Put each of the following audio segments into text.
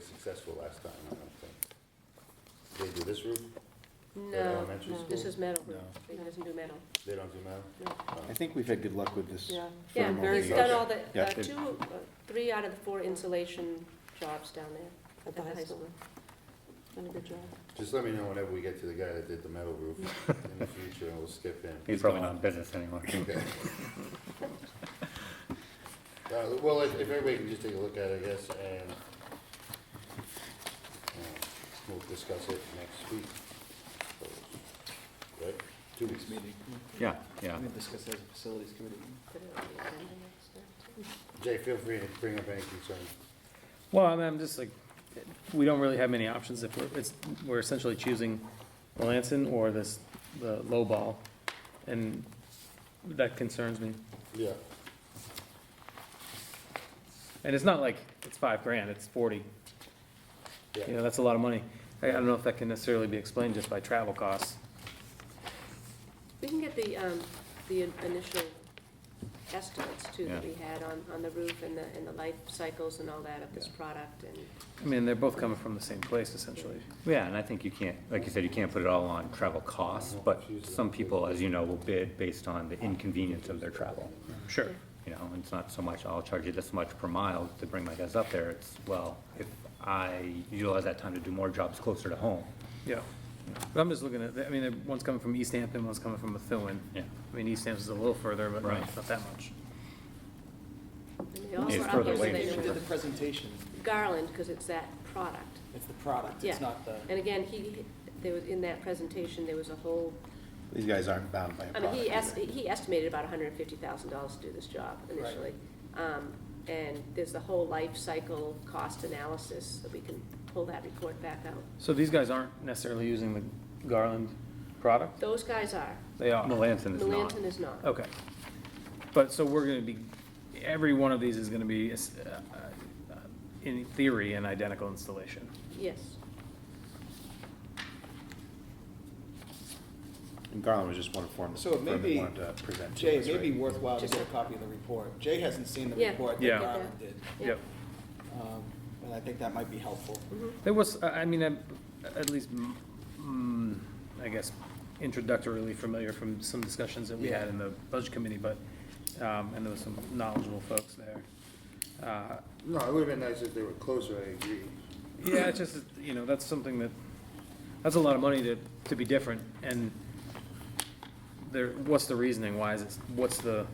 successful last time, I don't think. They do this roof? No, elementary no. school? this is metal. No. He doesn't do metal. They don't do metal? No. Oh. I think we've had good luck with this. Yeah, for the yeah, moment. he's Yeah. done all the, Yeah, uh, they- two, uh, three out of the four insulation jobs down there at the high school. Done a good job. Just let me know whenever we get to the guy that did the metal roof in the future, and we'll skip him. He's probably not in business anymore. Okay. Uh, well, if, if everybody can just take a look at it, I guess, and, uh, we'll discuss it next week. Right? Two weeks. meeting. Yeah, yeah. We discussed as a facilities committee. Put it on the agenda next time. Jay, feel free to bring up any concerns. Well, I mean, I'm just like, we don't really have many options if we're, it's, we're essentially choosing Melanson or this, the low ball, and that concerns me. Yeah. And it's not like it's five grand, it's forty, you Yeah, know, that's a lot of money. I, I don't know if that can necessarily be explained just by travel costs. We can get the, um, the in- initial estimates too that Yeah. we had on, on the roof and the, and the life cycles and all that of this Yeah. product and, I mean, they're both coming from the same place essentially. Yeah, and I think you can't, like you said, you can't put it all on travel costs, but some people, as you know, will bid based on the inconvenience of their travel. Sure. You know, and it's not so much, I'll charge you this much per mile to bring my guys up there. It's, well, if I utilize that time to do more jobs closer to home, Yeah. But I'm just looking at, I mean, there- one's coming from East Hampton, one's coming from Methuen. Yeah. I mean, East Hampton's a little further, but Right. not not that much. and they also it's are further here so away they than know you Who did the it's presentation? Garland, because it's that product. It's the product, Yeah. it's not the. And again, he, there was, in that presentation, there was a whole These guys aren't bound by a I mean, product. he est- either. he estimated about hundred and fifty thousand dollars to do this job Right. initially. Um, and there's the whole life cycle cost analysis, that we can pull that report back out. So these guys aren't necessarily using the Garland product? Those guys are, They are. Melanson is not. Melanson is not. Oh. Okay. But, so we're gonna be, every one of these is gonna be, uh, uh, in theory, an identical installation. Yes, And Garland was just one form, So it may firm that be- wanted to present to Jay, us, it may be right? worthwhile to get a copy of the report. Jay hasn't seen the Yeah, report that Yeah. get Garland that. did. Yeah. Yep. Um, And I think that might be helpful. Mm-hmm. There was, I I mean, I'm at least, mm, I guess, introductorily familiar from some discussions that we had Yeah. in the budget committee, but, um, and there was some knowledgeable folks there. Uh, no, it would've been nice if they were closer, I agree. Yeah, it's just, you know, that's something that, that's a lot of money to, to be different, and there, what's the reasoning, why is it, what's the,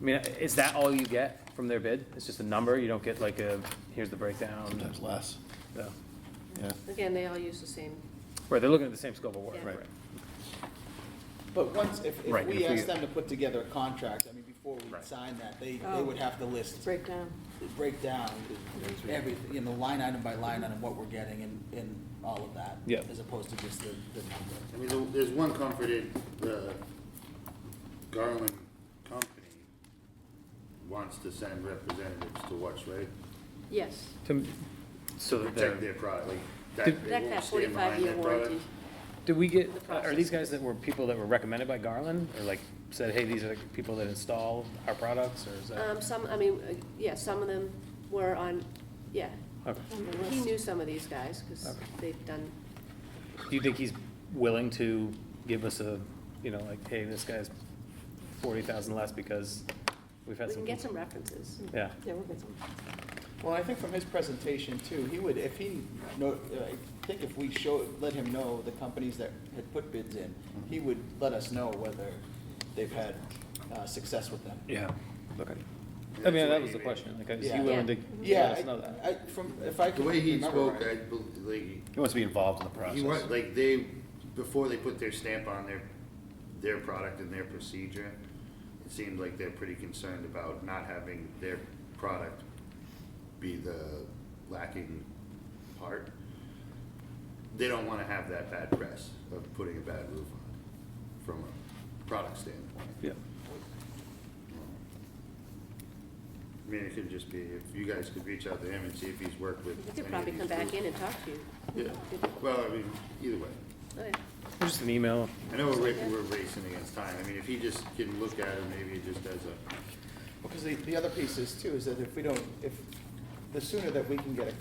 I mean, is that all you get from their bid? It's just a number, you don't get like a, here's the breakdown, Sometimes less, the, yeah. again, they all use the same, right, they're looking at the same scope of work, Yeah. right? Right. But once, if, Right, if if we- we ask them to put together a contract, I mean, before we sign that, they, they Oh. would have to list, breakdown. break down everything, you know, line item by line item, what we're getting and, and all of that. Yeah. As opposed to just the, the number. I mean, there- there's one comfort in the Garland company wants to send representatives to watch, right? Yes, To, so that Protect they're, their product, like, Did- that, they Protect won't that stand behind 45-year their product. warranty. did we get, The are these guys that were people that were recommended by Garland, or like, said, hey, these are the people that install our products, or is that? um, some, I mean, uh, yeah, some of them were on, yeah. Okay. He knew some of these guys, because Okay. they've done, Do you think he's willing to give us a, you know, like, hey, this guy's forty thousand less because we've had we some. can get some references. Yeah. Yeah, we'll get some. Well, I think from his presentation too, he would, if he, no, I think if we show, let him know the companies that had put bids in, he would let us know whether they've had uh, success with them. Yeah, okay. And I that's mean, that the was way he the question, like, is Yeah. he willing to let Yeah, us know that? I, I- from, if I made it. The can way he remember spoke, right. I, bel- like, He wants to be involved in the process. He want, like, they, before they put their stamp on their, their product and their procedure, it seemed like they're pretty concerned about not having their product be the lacking part. They don't wanna have that bad press of putting a bad roof on, from a product standpoint. Yeah, I mean, it could just be, if you guys could reach out to him and see if he's worked with. We could any of probably these come back groups. in and talk to you. Yeah, well, I mean, either way. Oh, yeah. just an email, I know we're, ra- we're racing against time. I mean, if he just can look at it, maybe it just does a, Because the, the other piece is too, is that if we don't, if, the sooner that we can get a